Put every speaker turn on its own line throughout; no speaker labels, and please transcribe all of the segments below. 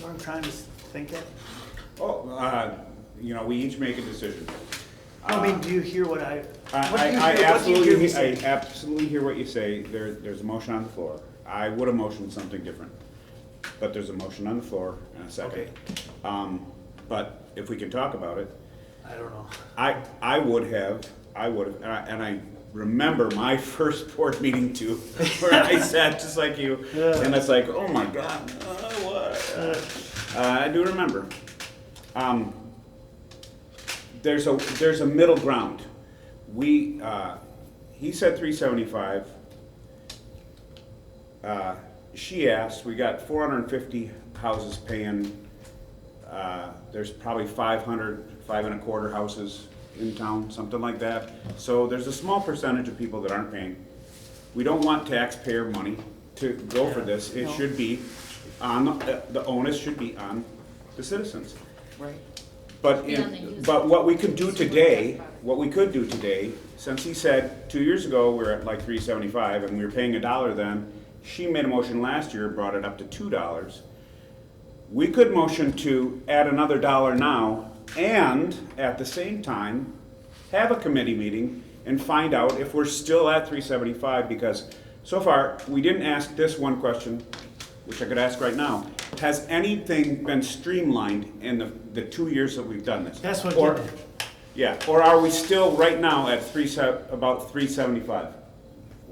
what I'm trying to s- think of?
Oh, uh, you know, we each make a decision.
I mean,
Uh,
do you hear what I,
I-
what do you
I- I
hear, what do you hear me
absolutely, I
say?
absolutely hear what you say. There, there's a motion on the floor. I would have motioned something different. But there's a motion on the floor and a second.
Okay.
Um, but if we can talk about it,
I don't know.
I, I would have, I would have, and I, and I remember my first board meeting too, where I sat just like you, and it's like, oh my god, uh, what? Uh, I do remember. Um, there's a there's a middle ground. We uh, he said three seventy five. Uh, she asked. We got four hundred and fifty houses paying. Uh, there's probably 500, five and a quarter houses in town, something like that. So there's a small percentage of people that aren't paying. We don't want taxpayer money to go for this. It
No.
should be on the, the onus should be on the citizens.
Right.
But,
Yeah, and they
in-
use
but what we could do
This is what
today,
that's about.
what we could do today, since he said, two years ago, we are at like three seventy-five, and we were paying a dollar then, she made a motion last year, brought it up to two dollars. We could motion to add another dollar now, and at the same time, have a committee meeting and find out if we're still at three seventy-five, because so far, we didn't ask this one question, which I could ask right now. Has anything been streamlined in the, the two years that we've done this?
That's what
Or-
did it.
Yeah, or are we still right now at three se, about three seventy-five?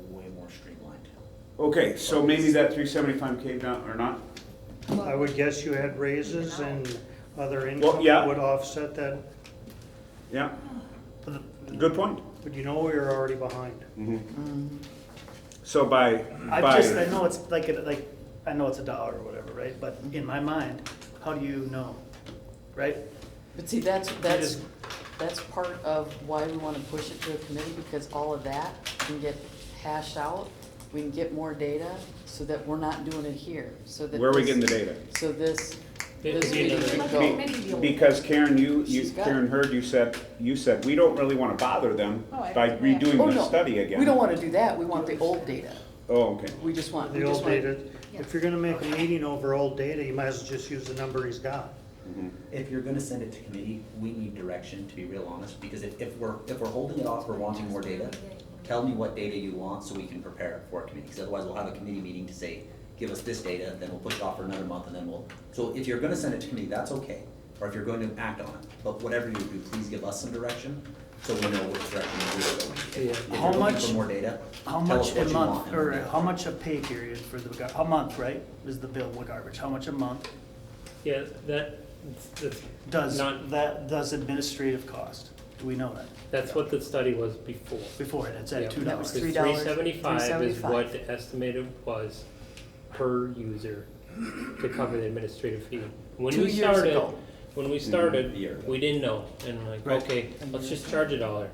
way more streamlined.
Okay, so maybe that three seventy-five came down or not?
I would guess you had raises and other
Well,
income
yeah.
that would offset that,
Yeah,
But the-
good point.
but you know we are already behind.
Mm-hmm. So by,
I
by.
just, I know it's like, a- like, I know it's a dollar or whatever, right? But in my mind, how do you know, right?
But see, that's, that's,
just-
that's part of why we wanna push it to a committee, because all of that can get hashed out. We can get more data, so that we're not doing it here, so that.
Where are we
this-
getting the data?
So this,
It'd
this
be
meeting
another-
can
Be-
go.
Because Karen, you, you,
She's got it.
Karen Heard, you said, you said, we don't really wanna bother them
Oh, I-
by
Oh,
redoing the
no.
study again.
We don't wanna do that, we want the old data,
Oh, okay.
we just want, we
The
just
old
want.
data, if you're gonna make a meeting over old data, you might as well just use the number he's got.
If you're gonna send it to committee, we need direction, to be real honest, because if, if we're, if we're holding it off, we're wanting more data, tell me what data you want so we can prepare for a committee, because otherwise we'll have a committee meeting to say, give us this data, then we'll push it off for another month, and then we'll, so if you're gonna send it to committee, that's okay, or if you're going to act on it, but whatever you do, please give us some direction, so we know which direction we're going. If- If
How
you're looking
much-
for more data,
How
tell us
much a
what you want.
month,
and then
or
we'll-
how much a pay period for the, gar- a month, right, is the billable garbage? How much a month
Yeah, that, it's- it's
does
Not-
that, does administrative cost? Do we know that?
that's what the study was before.
Before, it's at
Yeah.
two
That was
dollars.
three dollars,
Three seventy-five is
$3.75.
what the estimated was per user to cover the administrative fee. When
Two
we
years
started,
ago.
When we
Mhm, a year
started,
ago.
we didn't know, and like,
Right.
okay, let's just charge a dollar.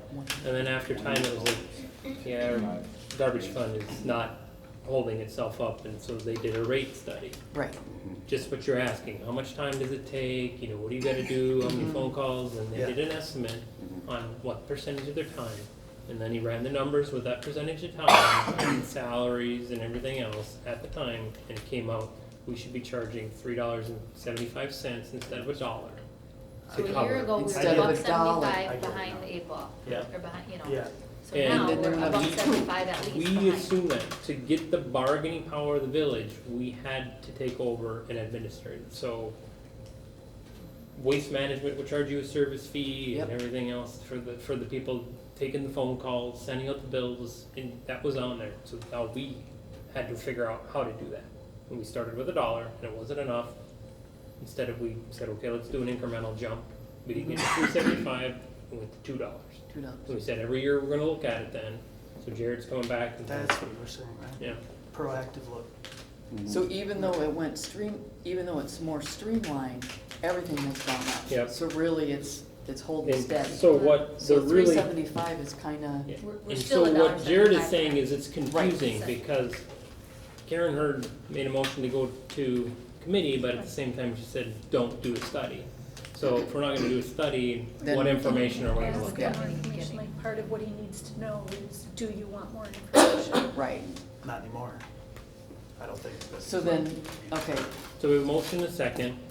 And then after time, it was like, yeah, our garbage fund is not holding itself up, and so they did a rate study.
Right,
just what you're asking, how much time does it take, you know, what do you gotta do, how many phone calls, and
Yeah.
they did an estimate on what percentage of their time, and then he ran the numbers with that percentage of time, and salaries and everything else at the time, and it came out, we should be charging three dollars and seventy-five cents instead of a dollar.
So a year ago, we were
Instead
about
of a dollar.
I
seventy-five
get it
behind
now.
the eight ball,
Yeah.
or behind, you know.
Yeah.
So
And-
now,
And then
we're
we're
about
gonna be-
seventy-five at least
We
behind.
assume that to get the bargaining power of the village, we had to take over an administrative, so waste management would charge you a service fee and
Yep.
everything else for the, for the people taking the phone calls, sending out the bills, and that was on there, so now we had to figure out how to do that. And we started with a dollar, and it wasn't enough, instead of we said, okay, let's do an incremental jump, we didn't get to three seventy-five, we went to two dollars.
two dollars.
So we said every year we're gonna look at it then. So Jared's coming back and
That's what we're saying, right?
yeah.
Proactive look.
So even though it went stream, even though it's more streamlined, everything has gone up.
Yep.
So really, it's, it's holding
And
steady.
so what the
So three
really
seventy-five is kinda,
yeah.
We're- we're
and
still
so
at
what Jared is
$1.75.
saying is it's confusing
Right.
because Karen Heard made a motion to go to committee, but at the same time she said, don't do a study. So if we're not gonna do a study,
Then-
what information are we gonna
Ask
look
for
at?
more information, like part of what he needs to know is, do you want more information?
right,
Not anymore. I don't think. but-
so then, okay,
So we have a motion and a second.